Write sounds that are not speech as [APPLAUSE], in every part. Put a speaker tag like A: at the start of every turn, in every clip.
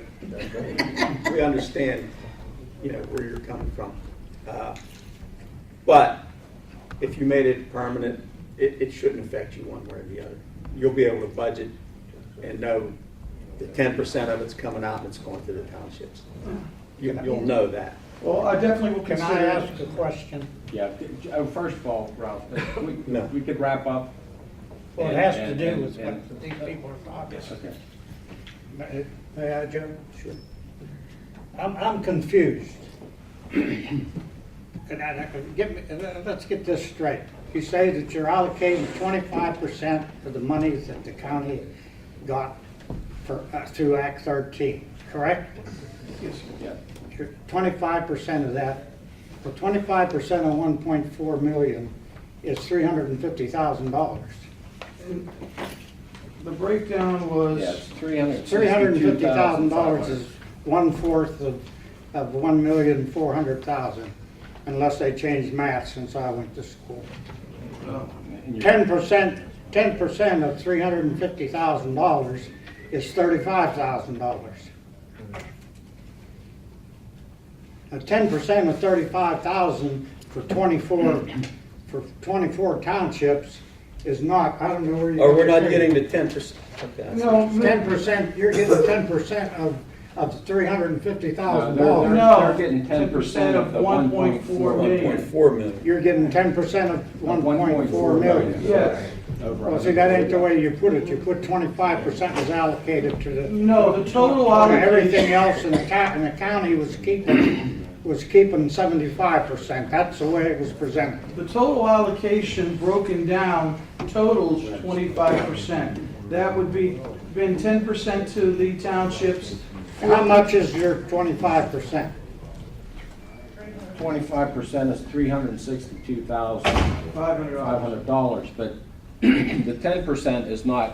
A: saying that, but we understand, you know, where you're coming from. Uh, But if you made it permanent, it, it shouldn't affect you one way or the other. You'll be able to budget and know that ten percent of it's coming out and it's going to the townships. You, you'll know that.
B: Well, I definitely will
C: Can I
B: consider.
C: ask a question?
D: Yeah, uh, first of all, Ralph, we,
A: No.
D: we could wrap up.
C: Well, it has to
D: And-
C: do
D: and-
C: with
D: and-
C: what these people are talking.
D: Okay.
C: May may I, Joe? Sure. I'm, I'm [CLEARS THROAT] confused. And I, I can- get me, let- let's get this straight. You say that you're allocating twenty-five percent of the monies that the county got for, uh, through Act thirteen, correct?
D: Yeah.
C: Twenty-five percent of that, well, twenty-five percent of one point four million is three hundred and fifty thousand dollars.
B: The breakdown
D: Yeah,
B: was,
D: it's three hundred.
C: Three hundred and fifty thousand dollars is one-fourth of, of one million, four hundred thousand, unless they changed math since I went to school. Ten percent, ten percent of three hundred and fifty thousand dollars is thirty-five thousand dollars. Now, ten percent of thirty-five thousand for twenty-four, for twenty-four townships is not, I don't know where you.
A: Or we're not getting the ten percent.
B: no,
C: Ten
B: no,
C: percent, you're getting ten percent of, of three hundred and fifty thousand dollars.
B: No.
D: They're getting ten percent of the one point
B: 1.4
D: four
A: One
D: million.
A: point four million.
C: You're getting ten percent of one point four million.
B: Yes.
D: Over
C: Well, see, that ain't the way you put it. You put twenty-five percent was allocated to the,
B: no, the total
C: to everything
B: allocation,
C: else in the county, and the county was keeping, was keeping seventy-five percent. That's the way it was presented.
B: the total allocation broken down totals twenty-five percent. That would be, been ten percent to the townships.
C: How much is your twenty-five percent?
D: Twenty-five percent is three hundred and sixty-two thousand
B: Five hundred
D: five
B: dollars.
D: hundred dollars, but [CLEARS THROAT] the ten percent is not,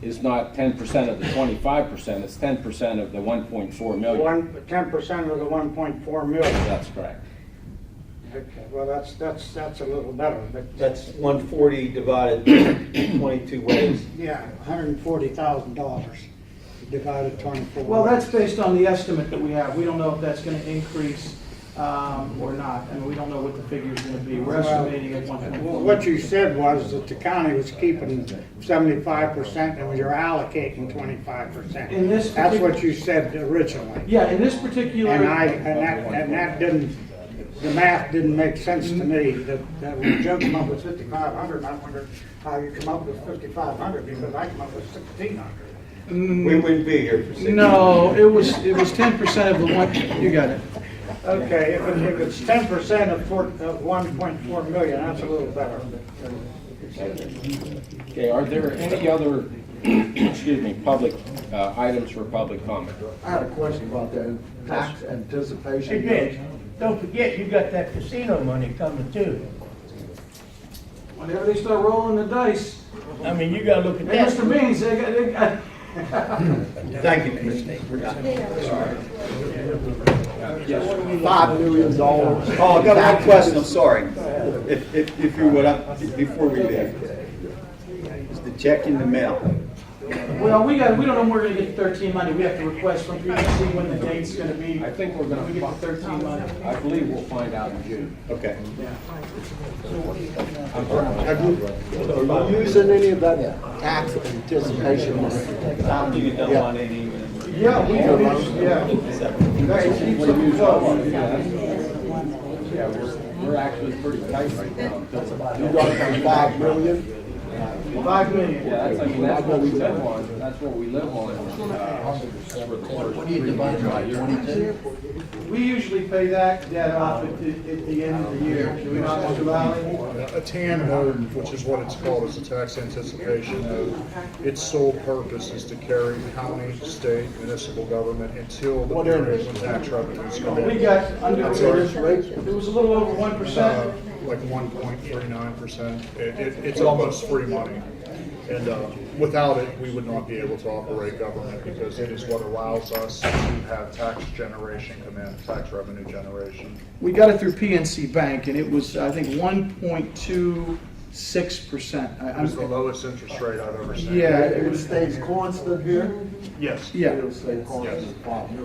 D: is not ten percent of the twenty-five percent, it's ten percent of the one point four million.
C: One, ten percent of the one point four million.
D: That's correct.
C: Okay, well, that's, that's, that's a little better, but.
A: That's one forty divided twenty-two ways.
C: Yeah, hundred and forty thousand dollars divided twenty-four.
B: Well, that's based on the estimate that we have. We don't know if that's gonna increase, um, or not, and we don't know what the figure's gonna be. We're estimating at one point
C: Well,
B: four.
C: What you said was that the county was keeping seventy-five percent and you're allocating twenty-five percent.
B: In this
C: That's
B: particular-
C: what you said originally.
B: Yeah, in this particular.
C: And I, and that, and that didn't, the math didn't make sense to me, that, that when Joe come up with fifty-five hundred, I wonder how you come up with fifty-five hundred, because I come up with sixteen hundred.
A: We wouldn't be here for six.
B: No, it was, it was ten percent of the one, you got it.
C: Okay, if it- if it's ten percent of four, of one point four million, that's a little better.
D: Okay, are there any other, excuse me, public, uh, items for public comment?
E: I had a question about that tax anticipation.
F: Hey, Mitch, don't forget, you got that casino money coming too.
B: Whenever they start rolling the dice,
F: I mean, you gotta look at
B: hey,
F: that.
B: Mr. Beans, they got, they got,
A: Thank you, Mr. We're done. Sorry.
E: Five million dollars.
A: Oh, I got one question, I'm sorry. If, if, if you would, I- before we leave. Is the check in the mail?
B: well, we got, we don't know when we're gonna get the thirteen money. We have to request from people to see when the date's gonna be.
D: I think we're
B: When we
D: gonna,
B: get the
D: fi-
B: thirteen money.
D: I believe we'll find out in June.
A: Okay.
E: Are you using any of that tax anticipation money?
A: You don't want any. uh,
B: Yeah, we, we- yeah.
D: Yeah, we're, we're actually pretty tight right now.
E: You got
D: uh,
E: that five million?
B: Five million.
D: Yeah, that's, I mean, that's what we live on, that's what we live on. uh, for the first three years.
B: We usually pay that debt off at the, at the end of the year, do we not, Mr. Valley?
G: A tan loan, which is what it's called, is a tax anticipation note. Its sole purpose is to carry county, state, municipal government until the period when tax revenues come in.
B: We got under,
G: That's
B: it was a little over one
G: Uh,
B: percent.
G: Like one point three nine percent. It, it, it's almost free money. And, uh, without it, we would not be able to operate government because it is what allows us to have tax generation come in, tax revenue generation.
B: We got it through PNC Bank, and it was, I think, one point two six percent.
G: It was the lowest interest rate I've ever seen.
B: Yeah,
E: It stays constant here?
G: Yes.
B: yeah.
E: It'll stay constant, five million.